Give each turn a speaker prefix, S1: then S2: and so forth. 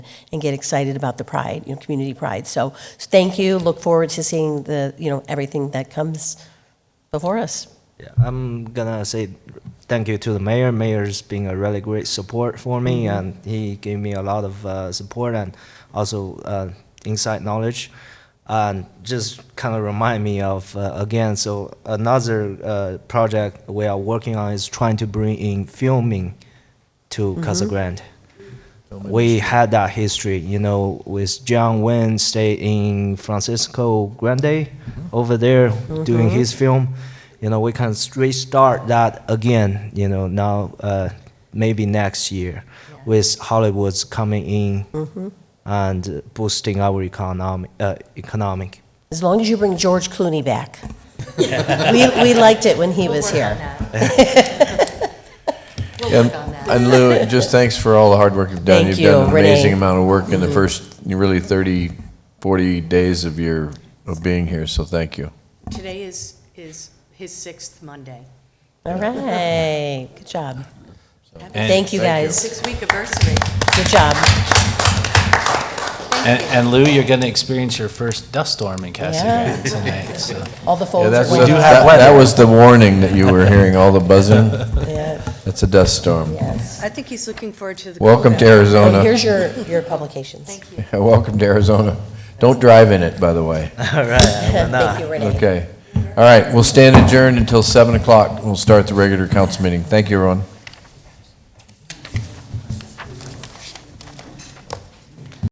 S1: and get excited about the pride, you know, community pride. So thank you. Look forward to seeing the, you know, everything that comes before us.
S2: Yeah, I'm gonna say thank you to the mayor. Mayor's been a really great support for me, and he gave me a lot of uh, support and also uh, inside knowledge, and just kind of remind me of uh, again. So another uh, project we are working on is trying to bring in filming to Casa Grande. We had that history, you know, with John Wayne stay in Francisco Grande over there doing his film. You know, we can restart that again, you know, now uh, maybe next year with Hollywood's coming in and boosting our economic, uh, economic.
S1: As long as you bring George Clooney back. We, we liked it when he was here.
S3: We'll work on that. And Lou, just thanks for all the hard work you've done.
S1: Thank
S3: You've done
S1: you,
S3: an
S1: Renee. Mm-hmm.
S3: amazing amount of work in the first, really 30, 40 days of your, of being here, so thank you.
S4: Today is, is his sixth Monday,
S1: All right, good job. Thank you,
S3: Thank you.
S1: guys.
S4: six-week anniversary.
S1: Good job.
S5: And, and Lou, you're going to experience your first dust storm in Casa
S1: Yeah.
S5: Grande tonight. So.
S1: All the
S3: Yeah,
S1: folds
S3: that's,
S1: are
S3: that
S1: went up.
S3: that was the warning that you were hearing, all the buzzing.
S1: Yeah,
S3: That's a dust storm.
S1: yes.
S4: I think he's looking forward to the.
S3: Welcome to
S1: Oh,
S3: Arizona.
S1: Here's your, your publications.
S4: Thank you.
S3: Welcome to Arizona. Don't drive in it, by the way.
S2: All right.
S1: Thank you, Renee.
S3: Okay. All right, we'll stand adjourned until 7 o'clock. We'll start the regular council meeting. Thank you, everyone.